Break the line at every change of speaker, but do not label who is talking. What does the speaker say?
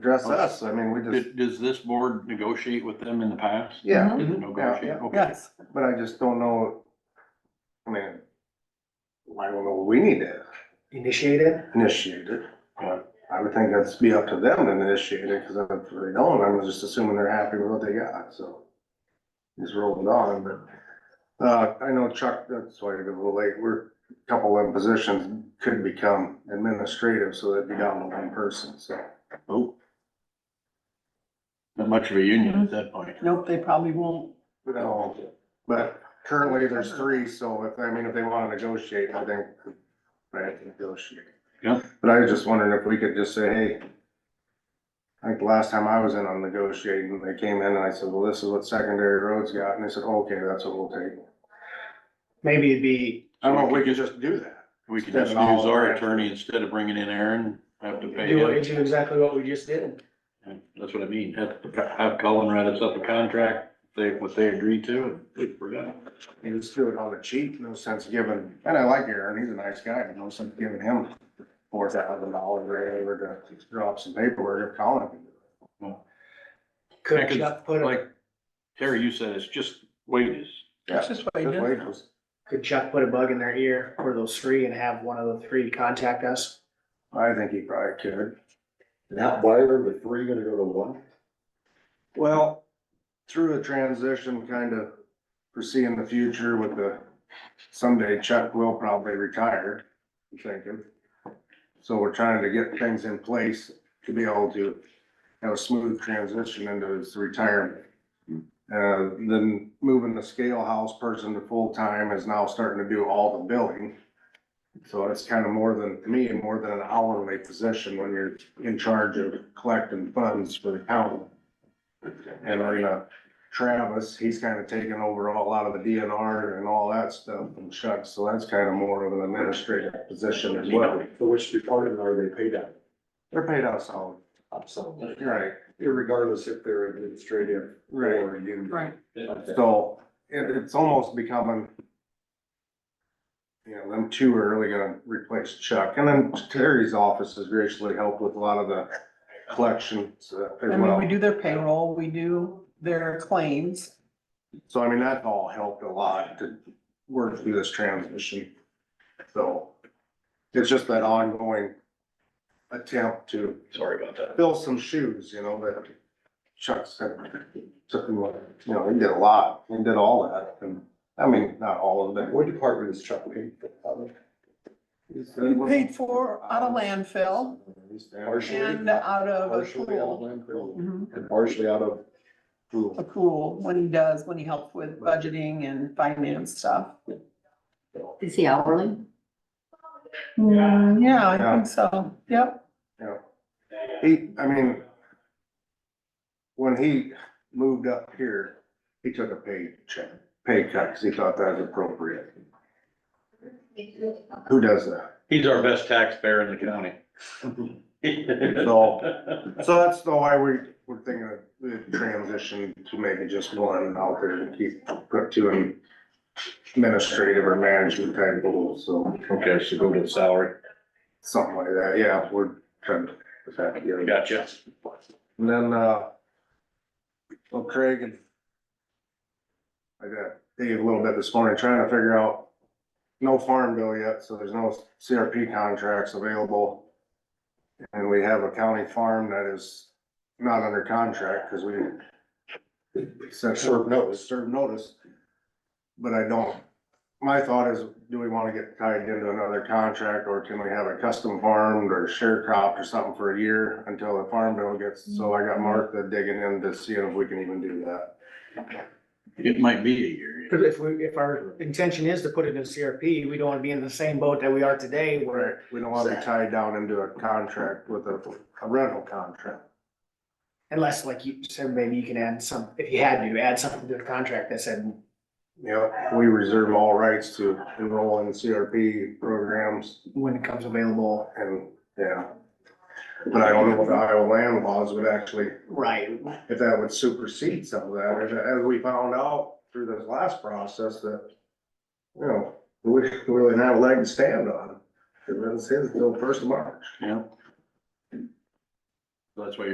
address us, I mean, we just,
Did- Does this board negotiate with them in the past?
yeah,
Mm-hmm.
Mm-hmm.
Did it negotiate?
Yeah, yeah.
Okay.
Yes.
but I just don't know. I mean, I don't know, we need to
Initiate it.
initiate it.
Yeah.
I would think that's be up to them to initiate it, cause if they don't, I'm just assuming they're happy with what they got, so. Just roll it on, but, uh, I know Chuck, that's why you're a little late, we're, a couple of them positions could become administrative, so that'd be down to one person, so.
Oh. Not much of a union
Mm-hmm.
at that point.
Nope, they probably won't.
But, um, but currently there's three, so if, I mean, if they wanna negotiate, I think, they have to negotiate.
Yeah.
But I was just wondering if we could just say, hey, like the last time I was in on negotiating, they came in and I said, well, this is what secondary roads got, and they said, okay, that's what we'll take.
Maybe it'd be,
I don't know if we could just do that.
We could just use our attorney instead of bringing in Aaron, have to pay
do what-
him.
do exactly what we just did.
That's what I mean. Have, have Colin write us up a contract, they, what they agree to, and we're done.
You just do it on the cheap, no sense giving, and I like Aaron, he's a nice guy, but no sense giving him four thousand dollars or whatever to drop some paperwork if Colin can do it.
Could
Because,
Chuck put, a-
Like Terry, you said, it's just wages.
That's just what
Just
I
wait, just-
could Chuck put a bug in their ear for those three and have one of the three contact us?
I think he probably could.
Not buyer, but three gonna go to one?
Well, through a transition, kind of foreseeing the future with the, someday Chuck will probably retire, I'm thinking. So we're trying to get things in place to be able to have a smooth transition into his retirement. Uh, then moving the scale house person to full-time is now starting to do all the billing. So it's kind of more than, to me, more than an hourly position when you're in charge of collecting funds for the county. And we're gonna, Travis, he's kind of taken over a lot of the DNR and all that stuff and Chuck, so that's kind of more of an administrative position as well.
For which department are they paid out?
They're paid out solid.
Absolutely.
Right,
Irregardless if they're administrative
right.
or union.
did. Right.
So it, it's almost becoming, you know, them two are really gonna replace Chuck. And then Terry's office has graciously helped with a lot of the collections uh,
I
as
mean,
well.
we do their payroll, we do their claims.
So I mean, that all helped a lot to work through this transition. So it's just that ongoing attempt to
Sorry about that.
fill some shoes, you know, that Chuck said, took him, you know, he did a lot, he did all that. And I mean, not all of it.
What department is Chuck paid for?
You paid for out of landfill and out of a
Partially out of
pool.
landfill
Mhm,
and partially out of
A pool, when he does, when he helps with budgeting and finance stuff.
Is he hourly?
Mm, Yeah, I
Yeah.
think so. Yep.
Yeah. He, I mean, when he moved up here, he took a pay check, pay cut, because he thought that was appropriate. Who does that?
He's our best taxpayer in the county.
So- So that's the why we, we're thinking of the transition to maybe just one out there and keep, put to an administrative or management type role, so
Okay, so go to the salary.
something like that, yeah, we're trying to. put that together.
Gotcha.
And then, uh, well, Craig and I got Dave a little bit this morning trying to figure out, no farm bill yet, so there's no CRP contracts available. And we have a county farm that is not under contract because we sent
Serve notice.
served notice. But I don't, my thought is, do we want to get tied into another contract or can we have a custom farmed or share cropped or something for a year until the farm bill gets, so I got Martha digging in to see if we can even do that.
It might be a year.
Cause if we, if our intention is to put it in CRP, we don't wanna be in the same boat that we are today where
We don't want to be tied down into a contract with a a rental contract.
unless like you said, maybe you can add some, if you had to, add something to the contract that said,
Yep, we reserve all rights to enroll in CRP programs
when it comes available.
and, yeah. But I don't know what the Iowa land laws would actually
Right,
if that would supersede some of that, as, as we found out through this last process that, you know, we we really didn't have a leg to stand on. It doesn't say until first of March.
Yeah. That's why